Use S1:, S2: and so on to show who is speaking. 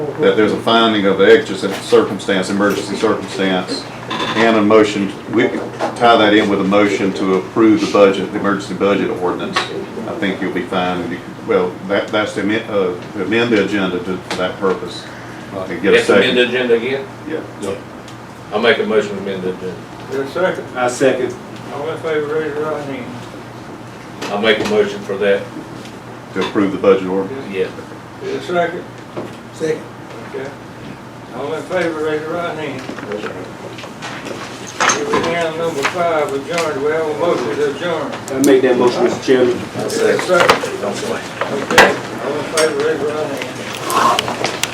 S1: that there's a finding of exigent circumstance, emergency circumstance, and a motion, we could tie that in with a motion to approve the budget, the emergency budget ordinance. I think you'll be fine. You could- Well, that, that's to amend, uh, to amend the agenda to, for that purpose. And get a
S2: Let's amend
S1: second.
S2: the agenda again.
S1: Yeah.
S2: I'll make a motion to amend the agenda.
S3: Your second,
S4: I second.
S3: all in favor, raise your right hand.
S2: I'll make a motion for that,
S1: To approve the budget ordinance.
S2: yeah.
S3: Your second,
S5: Second.
S3: okay. All in favor, raise your right hand. Here we have number five, adjourned, we have a motion to adjourn.
S4: I make that motion, Mr. Chairman.
S3: Your second, okay. All in favor, raise your right hand.